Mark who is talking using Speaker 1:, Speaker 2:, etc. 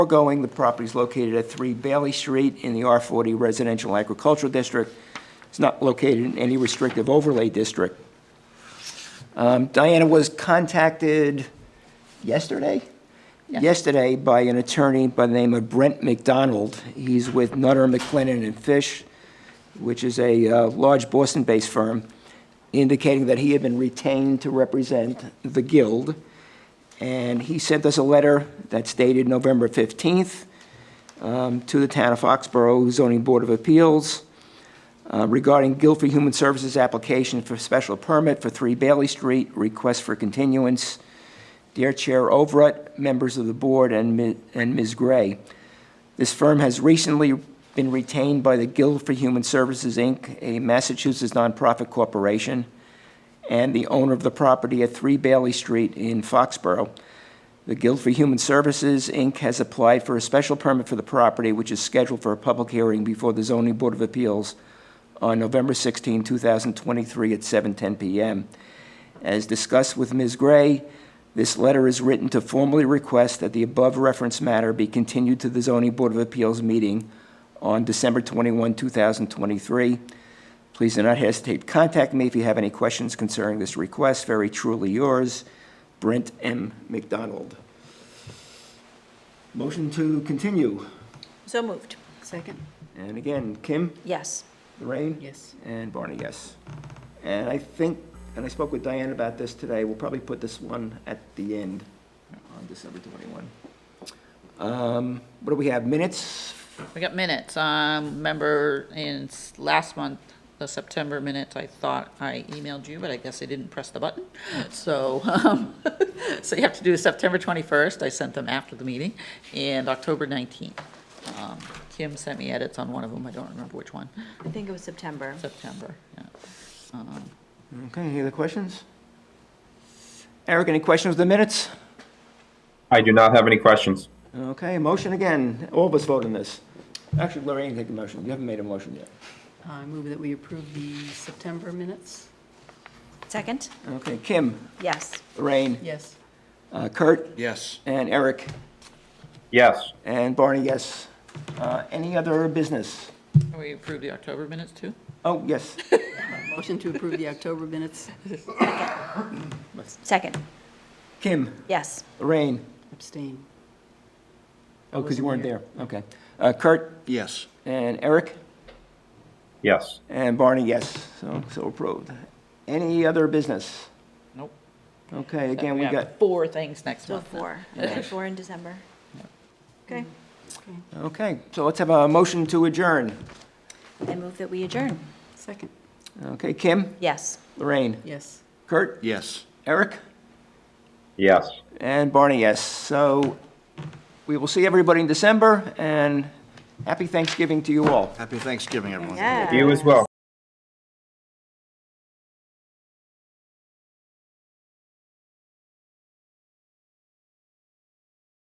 Speaker 1: Foregoing, the property is located at 3 Bailey Street in the R40 Residential Agricultural District. It's not located in any restrictive overlay district. Um, Diana was contacted yesterday? Yesterday by an attorney by the name of Brent McDonald. He's with Nutter, McLennan, and Fish, which is a uh, large Boston-based firm, indicating that he had been retained to represent the Guild. And he sent us a letter that's dated November 15th um, to the Town of Foxborough Zoning Board of Appeals uh, regarding Guilford Human Services application for special permit for 3 Bailey Street, request for continuance. Dear Chair Overett, members of the board, and Mi- and Ms. Gray, this firm has recently been retained by the Guild for Human Services, Inc., a Massachusetts nonprofit corporation, and the owner of the property at 3 Bailey Street in Foxborough. The Guild for Human Services, Inc. has applied for a special permit for the property, which is scheduled for a public hearing before the Zoning Board of Appeals on November 16, 2023, at 7:10 PM. As discussed with Ms. Gray, this letter is written to formally request that the above referenced matter be continued to the Zoning Board of Appeals meeting on December 21, 2023. Please do not hesitate to contact me if you have any questions concerning this request. Very truly yours, Brent M. McDonald. Motion to continue.
Speaker 2: So moved.
Speaker 3: Second?
Speaker 1: And again, Kim,
Speaker 2: Yes.
Speaker 1: Lorraine?
Speaker 3: Yes.
Speaker 1: And Barney, yes. And I think, and I spoke with Diane about this today, we'll probably put this one at the end on December 21. Um, What do we have, minutes?
Speaker 4: We got minutes. Um, remember in s- last month, the September minutes, I thought I emailed you, but I guess I didn't press the button. So, um, so you have to do September twenty-first. I sent them after the meeting, and October nineteenth. Um, Kim sent me edits on one of them. I don't remember which one.
Speaker 2: I think it was September.
Speaker 4: September, yeah. Um,
Speaker 1: Okay, any other questions? Eric, any questions with the minutes?
Speaker 5: I do not have any questions.
Speaker 1: Okay, motion again, all of us vote on this. Actually, Lorraine, take the motion, you haven't made a motion yet.
Speaker 3: I move that we approve the September minutes.
Speaker 2: Second?
Speaker 1: Okay, Kim,
Speaker 2: Yes.
Speaker 1: Lorraine,
Speaker 3: Yes.
Speaker 1: uh, Kurt,
Speaker 6: Yes.
Speaker 1: and Eric,
Speaker 5: Yes,
Speaker 1: and Barney, yes. Uh, Any other business?
Speaker 4: We approved the October minutes too?
Speaker 1: Oh, yes.
Speaker 3: Motion to approve the October minutes.
Speaker 2: Second?
Speaker 1: Kim,
Speaker 2: Yes.
Speaker 1: Lorraine,
Speaker 3: Abstain.
Speaker 1: Oh, because you
Speaker 3: wasn't
Speaker 1: weren't
Speaker 3: here.
Speaker 1: there, okay. Uh, Kurt
Speaker 6: Yes.
Speaker 1: and Eric
Speaker 5: yes.
Speaker 1: and Barney, yes, so, so approved. Any other business?
Speaker 4: Nope.
Speaker 1: Okay, again, we
Speaker 4: have
Speaker 1: got,
Speaker 4: Four things next
Speaker 2: So
Speaker 4: month. then.
Speaker 2: four.
Speaker 1: Yeah.
Speaker 2: Four in December. Okay.
Speaker 1: okay, so let's have a motion to adjourn.
Speaker 2: I move that we adjourn.
Speaker 3: Second?
Speaker 1: Okay, Kim,
Speaker 2: Yes.
Speaker 1: Lorraine,
Speaker 3: Yes.
Speaker 1: Kurt,
Speaker 6: Yes.
Speaker 1: Eric,
Speaker 5: Yes.
Speaker 1: and Barney, yes. So we will see everybody in December, and happy Thanksgiving to you all.
Speaker 6: Happy Thanksgiving, everyone.
Speaker 2: Yeah.
Speaker 5: You as well.